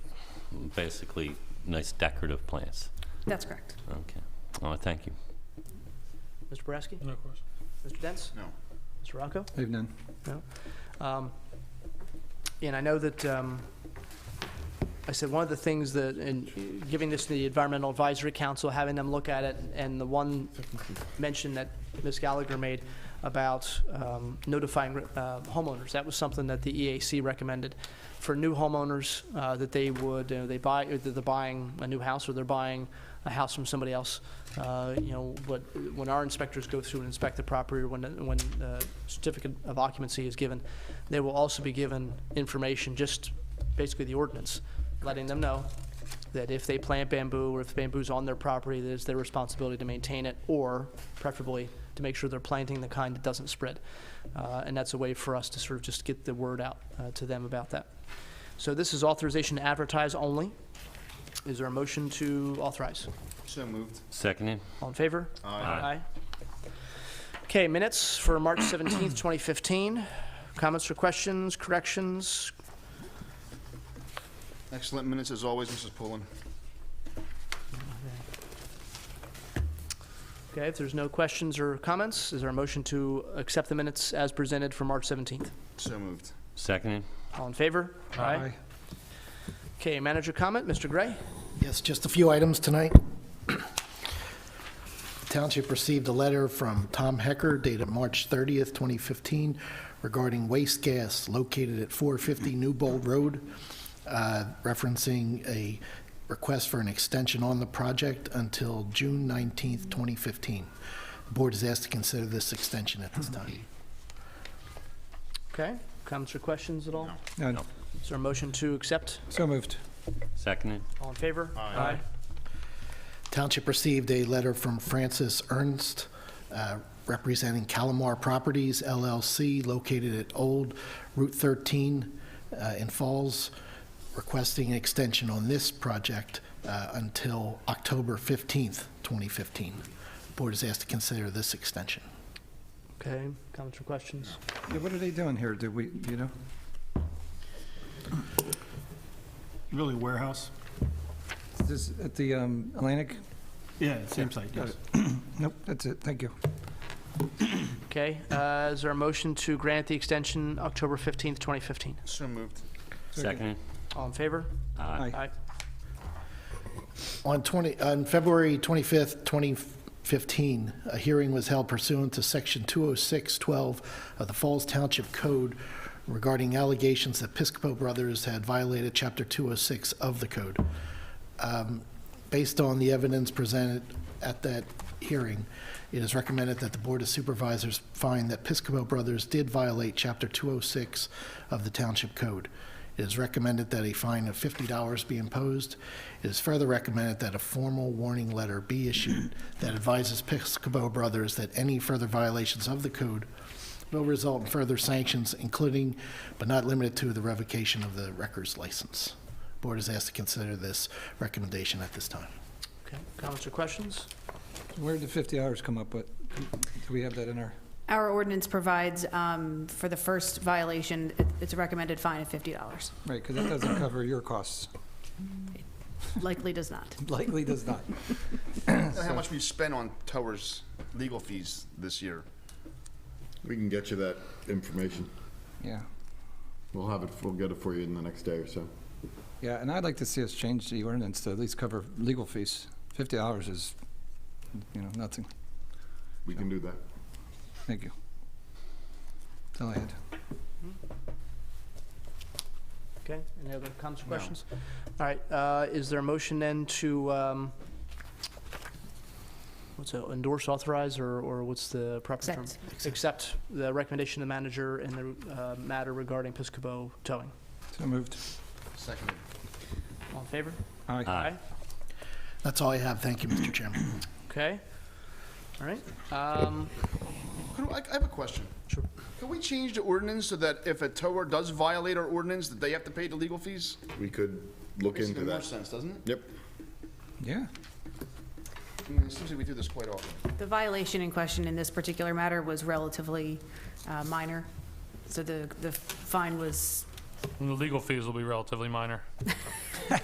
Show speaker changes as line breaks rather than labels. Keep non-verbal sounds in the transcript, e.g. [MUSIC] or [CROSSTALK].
basically nice decorative plants.
That's correct.
Okay. Oh, thank you.
Mr. Boraski?
No question.
Mr. Dents?
No.
Mr. Rocco?
I have none.
Um, And I know that, um, I said, one of the things that, in giving this to the Environmental Advisory Council, having them look at it, and the one mention that Ms. Gallagher made about um, notifying uh, homeowners, that was something that the EAC recommended. For new homeowners, uh, that they would, you know, they buy, either they're buying a new house or they're buying a house from somebody else. Uh, You know, but when our inspectors go through and inspect the property, or when, when uh, certificate of occupancy is given, they will also be given information, just basically the ordinance, letting them know that if they plant bamboo or if bamboo's on their property, it is their responsibility to maintain it or preferably to make sure they're planting the kind that doesn't spread. Uh, and that's a way for us to sort of just get the word out uh, to them about that. So this is authorization to advertise only. Is there a motion to authorize?
So moved.
Seconded?
All in favor?
Aye.
Okay, minutes for March 17th, 2015. Comments or questions, corrections?
Excellent minutes as always, Mrs. Pullen.
Okay, if there's no questions or comments, is there a motion to accept the minutes as presented for March 17th?
So moved.
Seconded?
All in favor? Aye. Okay, manager comment, Mr. Gray?
Yes, just a few items tonight. The Township received a letter from Tom Hecker dated March 30th, 2015 regarding waste gas located at 450 Newbold Road, uh, referencing a request for an extension on the project until June 19th, 2015. The board is asked to consider this extension at this time.
Okay, comments or questions at all?
None.
No.
Is there a motion to accept?
So moved.
Seconded?
All in favor?
Aye.
Township received a letter from Francis Ernst uh, representing Calamar Properties LLC located at Old Route 13 uh, in Falls, requesting an extension on this project uh, until October 15th, 2015. Board is asked to consider this extension.
Okay, comments or questions?
Yeah, what are they doing here? Do we, you know?
Really warehouse?
Is This, at the um, Atlantic?
Yeah, same site,
Got
yes.
it. [CLEARS THROAT] Nope, that's it. Thank you.
Okay, uh, is there a motion to grant the extension October 15th, 2015?
So moved.
Seconded?
All in favor?
Aye.
Aye.
On 20, on February 25th, 2015, a hearing was held pursuant to Section 206-12 of the Falls Township Code regarding allegations that Piscopo Brothers had violated Chapter 206 of the code. Um, Based on the evidence presented at that hearing, it is recommended that the Board of Supervisors find that Piscopo Brothers did violate Chapter 206 of the Township Code. It is recommended that a fine of $50 be imposed. It is further recommended that a formal warning letter be issued that advises Piscopo Brothers that any further violations of the code will result in further sanctions, including but not limited to the revocation of the records license. Board is asked to consider this recommendation at this time.
Okay, comments or questions?
Where did the 50 hours come up with? Do we have that in our?
Our ordinance provides um, for the first violation, it- it's a recommended fine of $50.
Right, because that doesn't cover your costs. [LAUGHS]
Likely does not.
Likely does not.
How much we spent on Towers legal fees this year?
We can get you that information.
Yeah.
We'll have it, we'll get it for you in the next day or so.
Yeah, and I'd like to see us change the ordinance to at least cover legal fees. 50 hours is, you know, nothing.
We can do that.
Thank you. That's all I had.
Okay, any other comments or questions? All right, uh, is there a motion then to, um, what's it, endorse, authorize, or, or what's the proper term?
Accept.
Accept the recommendation of the manager in the uh, matter regarding Piscopo towing.
So moved.
Seconded.
All in favor?
Aye.
Aye.
That's all I have. Thank you, Mr. Chairman.
Okay, all right. Um,
Could- I I have a question.
Sure.
Can we change the ordinance so that if a tower does violate our ordinance, that they have to pay the legal fees?
We could look
Makes
into
even more
that.
sense, doesn't it?
Yep.
Yeah.
I mean, it seems like we do this quite often.
The violation in question in this particular matter was relatively uh, minor, so the, the fine was,
And the legal fees will be relatively minor.